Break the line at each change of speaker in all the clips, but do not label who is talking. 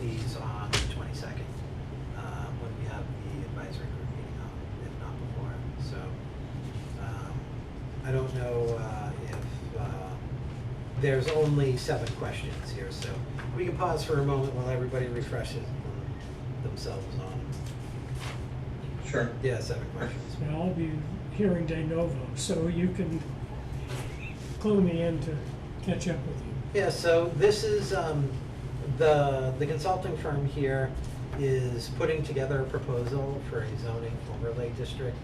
um, um, uh, There's only seven questions here, so we can pause for a moment while everybody refreshes themselves on,
Sure.
yeah, seven questions.
And I'll be hearing de novo, so you can clue me in to catch up with you.
Yeah, so this is, um, the, the consulting firm here is putting together a proposal for a zoning overlay district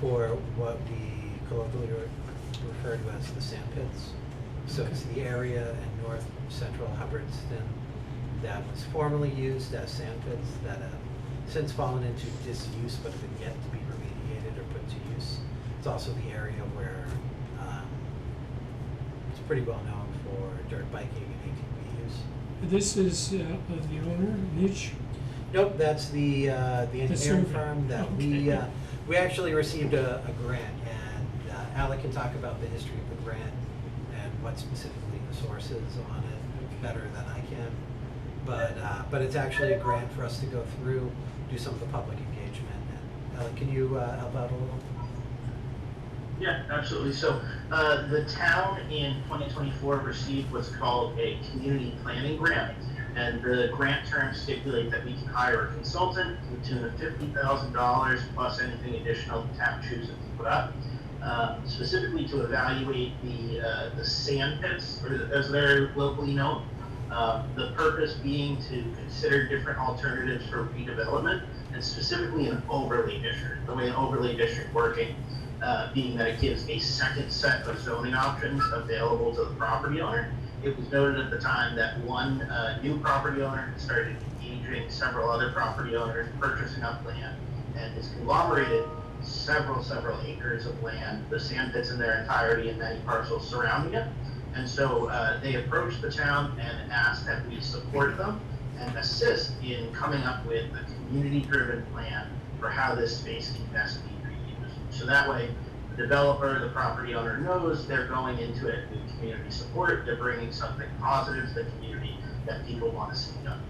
for what we colloquially re- refer to as the sand pits. So it's the area in north central Hubbardston that was formerly used as sand pits that have since fallen into disuse but have been yet to be remediated or put to use. It's also the area where, um, it's pretty well known for dirt biking and ATV use.
This is uh, of the owner, Mitch.
Nope, that's the, uh, the engineering
survey.
firm that we,
Okay.
uh, we actually received a, a grant, and uh, Alec can talk about the history of the grant and what specifically the source is on it better than I can. But, uh, but it's actually a grant for us to go through, do some of the public engagement. And Alec, can you, uh, help out a little?
Yeah, absolutely. So uh, the town in 2024 received what's called a community planning grant. And the grant terms stipulate that we can hire a consultant to the tune of $50,000 plus anything additional the town chooses to put up, uh, specifically to evaluate the, uh, the sand pits, or as they're locally known. Uh, The purpose being to consider different alternatives for redevelopment and specifically an overlay district, the way an overlay district working uh, being that it gives a second set of zoning options available to the property owner. It was noted at the time that one uh, new property owner had started engaging several other property owners, purchasing up land, and has conglomerated several, several acres of land, the sand pits in their entirety and many parcels surrounding it. And so uh, they approached the town and asked that we support them and assist in coming up with a community-driven plan for how this space can best be reused. So that way, the developer, the property owner knows they're going into it with community support, they're bringing something positive to the community that people want to see done.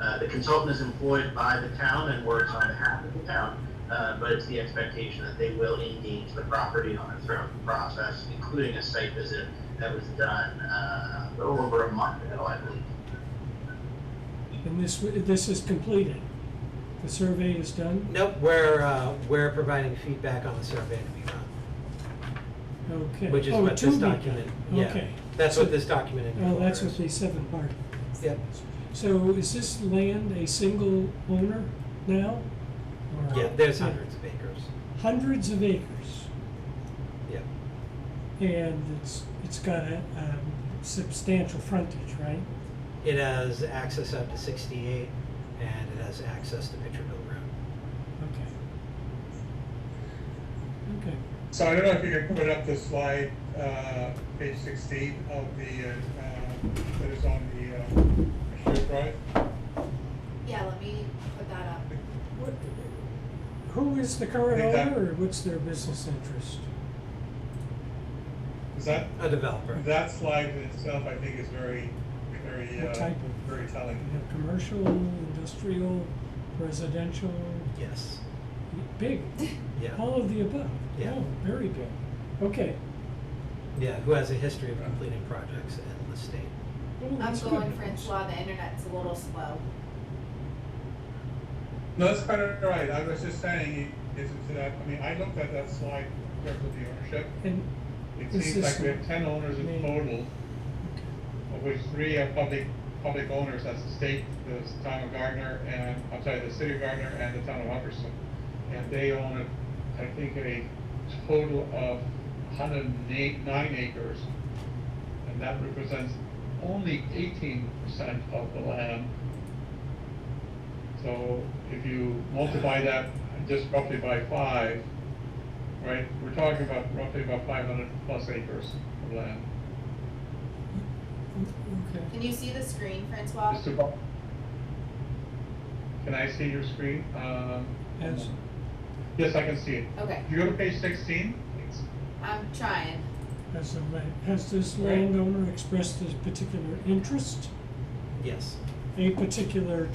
Uh, the consultant is employed by the town and works on behalf of the town, uh, but it's the expectation that they will engage the property owner throughout the process, including a site visit that was done, uh, a little over a month ago, I believe.
And this, this is completed. The survey is done?
Nope, we're, uh, we're providing feedback on the survey to be run.
Okay.
Which is
Oh,
what
to
this
be done.
document, yeah,
Okay.
that's what
So-
this document
Oh,
incorporates.
that's what the seven part.
Yep,
So is this land a single owner now? Or-
yeah, there's hundreds of acres,
Hundreds of acres.
yeah.
And it's, it's got a um, substantial frontage, right?
It has access up to sixty-eight, and it has access to Mitchellville Road.
Okay. Okay.
So I don't know if you can put up the slide, uh, page sixteen of the, uh, uh, that is on the, uh, shared drive.
Yeah, let me put that up.
What- Who is the current
Think that-
owner, or what's their business interest?
Is that,
A developer,
that slide in itself, I think, is very, very,
What
uh,
type of-
very
You
telling.
know, commercial, industrial, residential,
yes,
big,
yeah,
all of the above.
Yeah.
Oh, very big. Okay.
yeah, who has a history of completing projects in the state.
Oh,
I'm
that's good
going
news.
Francois, the internet's a little slow.
No, that's quite all right, I was just saying, is it that, I mean, I looked at that slide in terms of the ownership.
And,
It
Is
seems
this
like we have ten owners in
main-
total, of which three are public, public owners, that's the state, the town of Gardner, and, I'm sorry, the city of Gardner and the town of Hubbardston. And they own, I think, a total of hundred and eight, nine acres, and that represents only eighteen percent of the land. So if you multiply that just roughly by five, right, we're talking about roughly about five hundred plus acres of land.
okay.
Can you see the screen, Francois?
Mr. Bo- Can I see your screen? Um,
Yes.
Yes, I can see it.
Okay,
If you go to page sixteen, it's-
I'm trying.
Has the land, has this
Right.
landowner expressed a particular interest,
Yes.
a particular